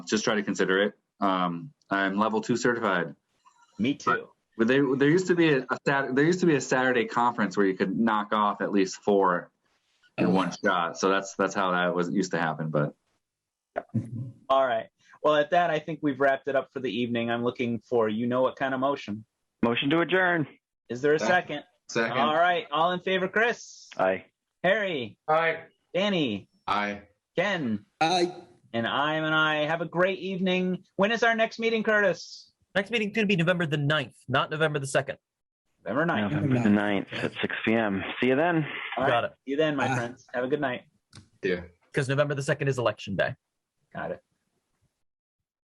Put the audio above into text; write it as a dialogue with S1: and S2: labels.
S1: just try to consider it. Um, I'm level two certified.
S2: Me too.
S1: But there, there used to be a, a Sat- there used to be a Saturday conference where you could knock off at least four in one shot. So that's that's how that was used to happen. But
S2: All right. Well, at that, I think we've wrapped it up for the evening. I'm looking for you know what kind of motion.
S3: Motion to adjourn.
S2: Is there a second?
S4: Second.
S2: All
S4: Second.
S2: right. All in favor, Chris,
S3: Aye.
S2: Harry,
S5: Aye.
S2: Danny,
S4: Aye.
S2: Ken,
S6: Aye.
S2: and I'm and I. Have a great evening. When is our next meeting, Curtis?
S7: Next meeting's going to be November the 9th, not November the 2nd.
S2: November 9th.
S3: November the 9th at 6 p.m. See you then.
S2: All
S7: Got
S2: right.
S7: it.
S2: See you then, my
S6: Bye.
S2: friends. Have a good night.
S4: Yeah.
S7: Because November the 2nd is election day.
S2: Got it.